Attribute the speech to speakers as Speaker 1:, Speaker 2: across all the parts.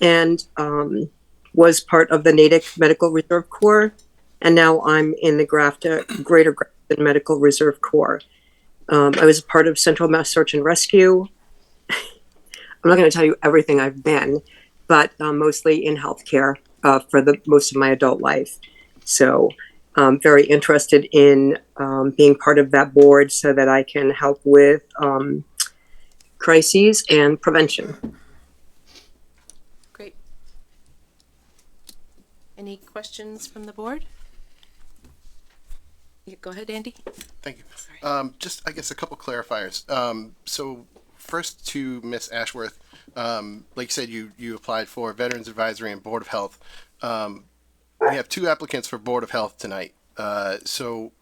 Speaker 1: and um, was part of the Natick Medical Reserve Corps. And now I'm in the Grafton, Greater Grafton Medical Reserve Corps. Um, I was part of Central Mass Search and Rescue. I'm not going to tell you everything I've been, but um, mostly in healthcare uh, for the most of my adult life. So um, very interested in um, being part of that board so that I can help with um, crises and prevention.
Speaker 2: Great. Any questions from the board? Yeah, go ahead, Andy.
Speaker 3: Thank you. Um, just, I guess, a couple clarifiers. Um, so first to Miss Ashworth, um, like you said, you, you applied for Veterans Advisory and Board of Health. Um, we have two applicants for Board of Health tonight. Uh, so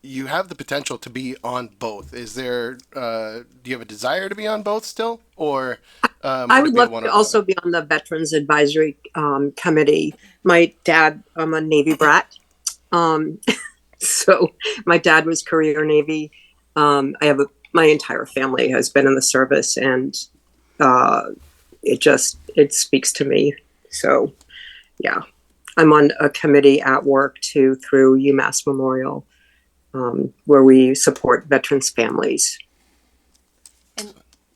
Speaker 3: you have the potential to be on both. Is there, uh, do you have a desire to be on both still? Or, um,
Speaker 1: I
Speaker 3: it
Speaker 1: would
Speaker 3: be
Speaker 1: love
Speaker 3: one or
Speaker 1: to
Speaker 3: the other?
Speaker 1: also be on the Veterans Advisory um, Committee. My dad, I'm a Navy brat. Um, so my dad was career Navy. Um, I have a, my entire family has been in the service and uh, it just, it speaks to me. So yeah, I'm on a committee at work too through UMass Memorial um, where we support veterans families.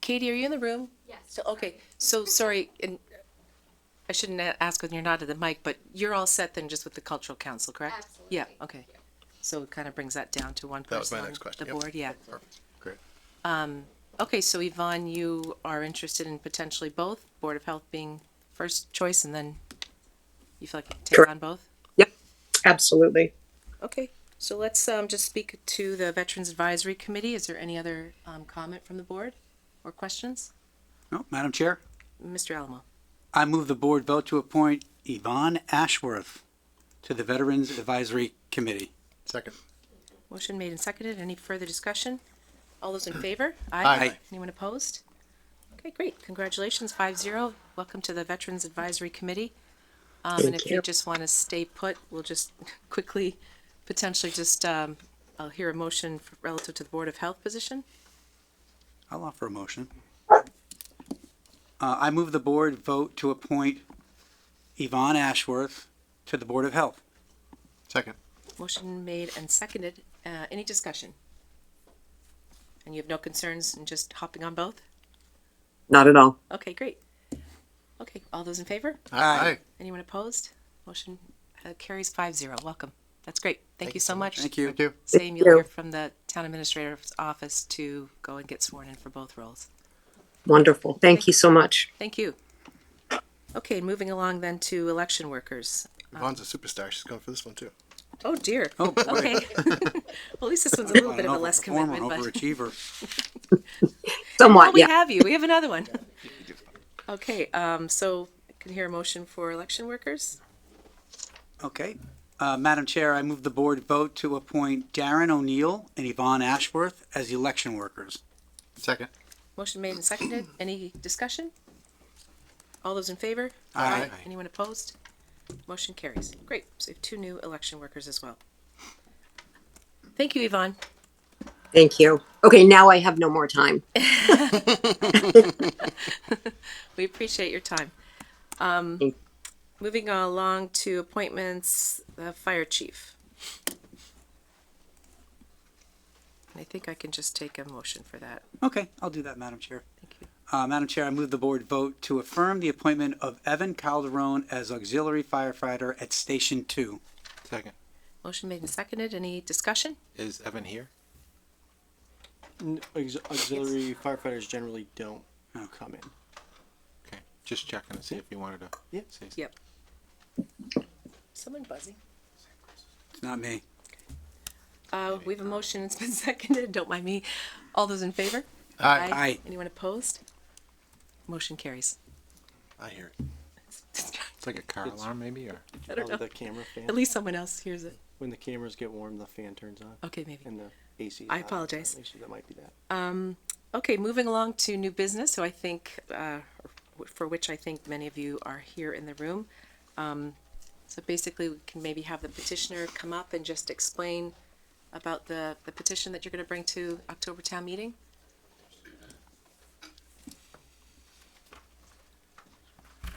Speaker 2: Katie, are you in the room? Yes. So, okay, so sorry, and I shouldn't a- ask when you're not at the mic, but you're all set then just with the cultural council, correct? Absolutely. Yeah, okay. So it kind of brings that down to one
Speaker 3: That was
Speaker 2: person
Speaker 3: my
Speaker 2: on
Speaker 3: next
Speaker 2: the
Speaker 3: question, yep.
Speaker 2: board, yeah.
Speaker 3: Perfect. Great.
Speaker 2: Okay, so Yvonne, you are interested in potentially both, Board of Health being first choice and then you feel like you take
Speaker 1: Correct.
Speaker 2: on both?
Speaker 1: Yep, absolutely.
Speaker 2: Okay, so let's um, just speak to the Veterans Advisory Committee. Is there any other um, comment from the board or questions?
Speaker 4: No, Madam Chair,
Speaker 2: Mr. Alamo.
Speaker 4: I move the board vote to appoint Yvonne Ashworth to the Veterans Advisory Committee.
Speaker 3: Second.
Speaker 2: Motion made and seconded. Any further discussion? All those in favor?
Speaker 3: Aye. Aye.
Speaker 2: Anyone opposed? Okay, great. Congratulations, five zero. Welcome to the Veterans Advisory Committee. Um, and
Speaker 1: Thank
Speaker 2: if you
Speaker 1: you.
Speaker 2: just want to stay put, we'll just quickly, potentially just, um, I'll hear a motion f- relative to the Board of Health position.
Speaker 4: I'll offer a motion. Uh, I move the board vote to appoint Yvonne Ashworth to the Board of Health.
Speaker 3: Second.
Speaker 2: Motion made and seconded. Uh, any discussion? And you have no concerns in just hopping on both?
Speaker 1: Not at all.
Speaker 2: Okay, great. Okay, all those in favor?
Speaker 4: Aye.
Speaker 2: Anyone opposed? Motion uh, carries five zero. Welcome. That's great. Thank you so much.
Speaker 4: Thank you.
Speaker 3: Thank you.
Speaker 2: Same, you'll
Speaker 1: you.
Speaker 2: hear from the town administrator's office to go and get sworn in for both roles.
Speaker 1: Wonderful. Thank you so much.
Speaker 2: Thank you. Okay, moving along then to election workers.
Speaker 3: Yvonne's a superstar. She's going for this one too.
Speaker 2: Oh dear.
Speaker 4: Oh, boy.
Speaker 2: Okay. Well, at least this one's a little
Speaker 4: On
Speaker 2: bit
Speaker 4: an
Speaker 2: of a less
Speaker 4: overperformer,
Speaker 2: commitment, but.
Speaker 4: Overachiever.
Speaker 2: Well,
Speaker 1: Somewhat,
Speaker 2: Oh, we
Speaker 1: yeah.
Speaker 2: have you. We have another one. Okay, um, so can hear a motion for election workers?
Speaker 4: Okay. Uh, Madam Chair, I move the board vote to appoint Darren O'Neill and Yvonne Ashworth as election workers.
Speaker 3: Second.
Speaker 2: Motion made and seconded. Any discussion? All those in favor?
Speaker 4: Aye.
Speaker 2: Anyone opposed? Motion carries. Great. So we have two new election workers as well. Thank you, Yvonne.
Speaker 1: Thank you. Okay, now I have no more time.
Speaker 2: We appreciate your time. Um,
Speaker 1: Thank-
Speaker 2: moving along to appointments, the fire chief. And I think I can just take a motion for that.
Speaker 4: Okay, I'll do that, Madam Chair.
Speaker 2: Thank you.
Speaker 4: Uh, Madam Chair, I move the board vote to affirm the appointment of Evan Calderon as auxiliary firefighter at Station Two.
Speaker 5: Second.
Speaker 2: Motion made and seconded. Any discussion?
Speaker 5: Is Evan here?
Speaker 6: N- Aux- auxiliary firefighters generally don't
Speaker 4: Oh.
Speaker 6: come in.
Speaker 5: Okay. Just checking to see if you wanted to
Speaker 6: Yeah.
Speaker 5: say something.
Speaker 2: Yep. Someone buzzing.
Speaker 4: It's not me.
Speaker 2: Uh, we have a motion. It's been seconded. Don't mind me. All those in favor?
Speaker 3: Aye.
Speaker 4: Aye.
Speaker 2: Anyone opposed? Motion carries.
Speaker 3: I hear it.
Speaker 5: It's like a car alarm maybe or?
Speaker 2: I don't
Speaker 6: Oh,
Speaker 2: know.
Speaker 6: The camera fan.
Speaker 2: At least someone else hears it.
Speaker 6: when the cameras get warm, the fan turns on
Speaker 2: Okay, maybe.
Speaker 6: and the AC. is
Speaker 2: I
Speaker 6: on.
Speaker 2: apologize.
Speaker 6: Actually, That might be that.
Speaker 2: Okay, moving along to new business. So I think, uh, for which I think many of you are here in the room. Um, so basically, we can maybe have the petitioner come up and just explain about the, the petition that you're going to bring to October town meeting.